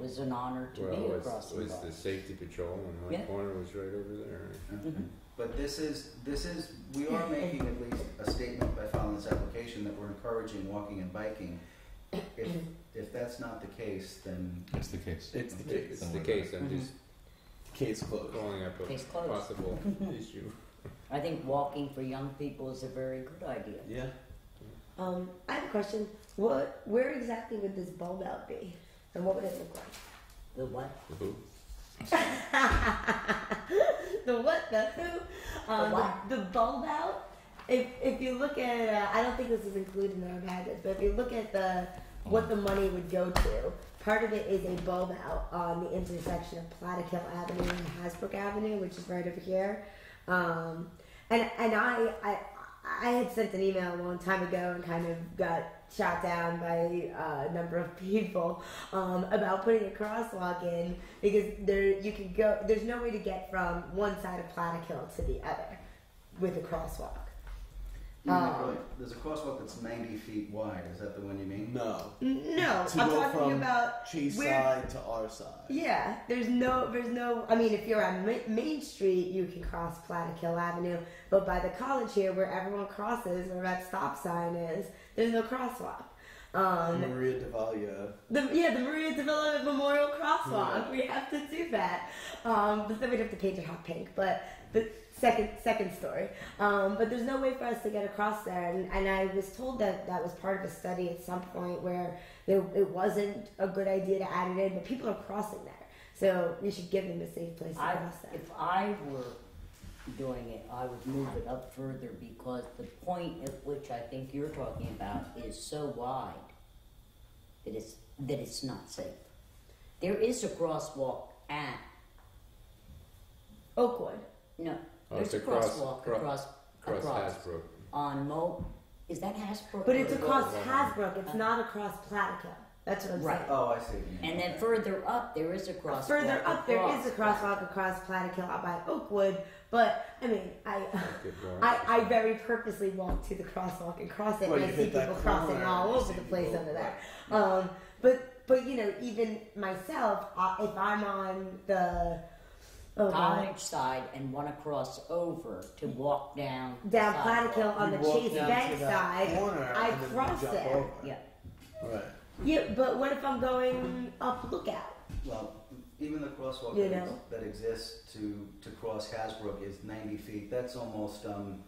was an honor to Well, be it across was, the was box. the safety patrol, and my Yeah. corner was right over there. Mm-hmm. But this is, this is, we are making at least a statement by filing this application that we're encouraging walking and biking. If, if that's not the case, then It's the case. It's the It- case. It's the case. I'm Mm-hmm. just Case closed. calling up a Case closed. possible issue. I think walking for young people is a very good idea. Yeah. Um, I have a question. What, where exactly would this bulb out be, and what would it look like? The what? Who? the what? The who? Um, The what? The, bulb out. If if you look at, uh, I don't think this is included in our package, but if you look at the what the money would go to, part of it is a bulb out on the intersection of Platic Hill Avenue and Hasbrook Avenue, which is right over here. Um, and and I, I I had sent an email a long time ago and kind of got shot down by uh, a number of people um, about putting a crosswalk in because there you can go. There's no way to get from one side of Platic Hill to the other with a crosswalk. you know, Um, really- there's a crosswalk that's ninety feet wide. Is that the one you mean? No. N- No, To I'm go talking from about Chase where- side to our side. Yeah, there's no, there's no. I mean, if you're on Ma- Main Street, you can cross Plattekill Avenue, but by the college here, where everyone crosses, where that stop sign is, there's no crosswalk. Um, Maria Devalia. the yeah, the Maria Development Memorial Crosswalk. We have to do that. Um, but then we'd have to paint it hot pink. But the second second story. Um, but there's no way for us to get across there. And, and I was told that that was part of a study at some point where there, it wasn't a good idea to add it in. But people are crossing there, so we should give them a safe place to I, cross there. if I were doing it, I would move it up further because the point at which I think you're talking about is so wide that it's that it's not safe. There is a crosswalk at Oakwood. no. Oh, There's it's a across- crosswalk cro- across Across across Hasbro. on Mo. Is that Hasbrook? But it's or- across Oakwood. Hasbrook. It's not across Platica. That's what I'm Right. saying. Oh, I see. what you mean. And then further up, there is a crosswalk. Further up, there is a across- crosswalk across Platicille out by Oakwood, but I mean, I, Good Lord. I, I very purposely walk to the crosswalk and cross it, Well, and I you see hit that people crossing corner, all you over see the place people- over there. Um, but but you know, even myself, uh, if I'm on the oh god, college side and want to cross over to walk down the down sidewalk. Platicille on You the walk Chase down Bank to that side, corner I and then you cross jump there. over. Yeah. Right. Yeah, but what if I'm going up Lookout? Well, even the crosswalk You that, know. that exists to, to cross Hasbrook is 90 feet. That's almost um,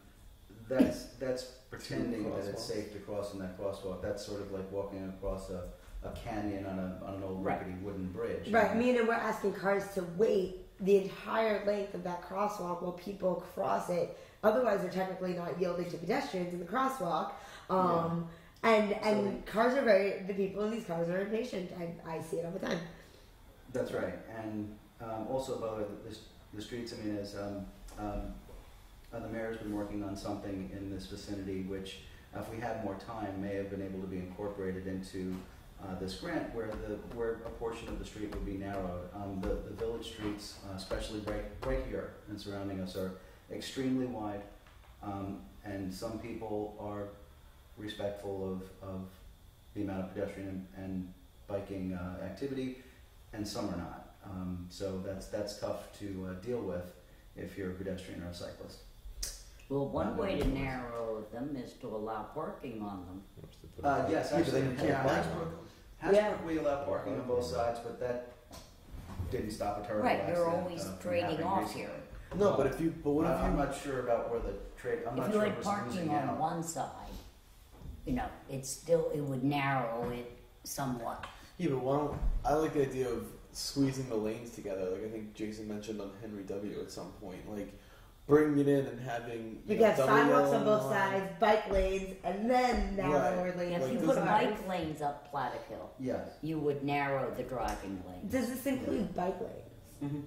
that's that's pretending that it's crosswalks. safe to cross in that crosswalk. That's sort of like walking across a, a canyon on, a, on an old Right. rickety wooden bridge. Right, me and we're asking cars to wait the entire length of that crosswalk while people cross it. Otherwise, they're technically not yielding to pedestrians in the crosswalk. Um, And and cars are very the people in these cars are impatient. I, I see it all the time. That's right. And um, also about the, the, the streets, I mean, is um, um, uh, the mayor's been working on something in this vicinity which, if we had more time, may have been able to be incorporated into uh, this grant where the where a portion of the street would be narrowed. Um, the, the village streets, uh, especially right, right here and surrounding us, are extremely wide. Um, and some people are respectful of, of the amount of pedestrian and, and biking uh, activity and some are not. Um, so that's that's tough to uh, deal with if you're a pedestrian or a cyclist. Well, one Not way to really. narrow them is to allow parking on them. What's the point? Uh, yes, Yeah, but actually, then you can't yeah, bike Hasbrook, Hasbrook Yeah. we allow parking on both sides, but that didn't stop a terrible Right, accident. you're always uh, from trading happening off recently. here. No, but if you, but what Well, if I'm you? not sure about where the trade. I'm not if you sure had who's parking losing on out. one side, you know, it's still it would narrow it somewhat. Yeah, but why don't I like the idea of squeezing the lanes together? Like I think Jason mentioned on Henry W at some point, like bringing it in and having You know, got double sidewalks yellow on both line. sides, bike lanes, and then narrower Right. lanes. If Like, you for put doesn't- cars. bike lanes up Platic Hill, Yes. you would narrow the driving lane. does this include bike lanes?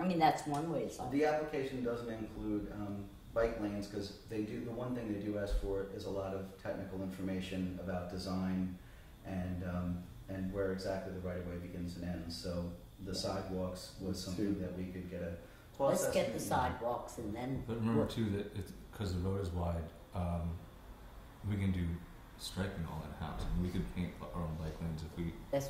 I mean, that's one way to solve it. The application doesn't include um, bike lanes because they do, the one thing they do ask for is a lot of technical information about design and, um, and where exactly the right of way begins and ends. So the sidewalks was something that we could get a cost Let's get the estimate on. sidewalks and then But remember work. too that it's because the road is wide, um, we can do striping all in house, and we could paint our own bike lanes if we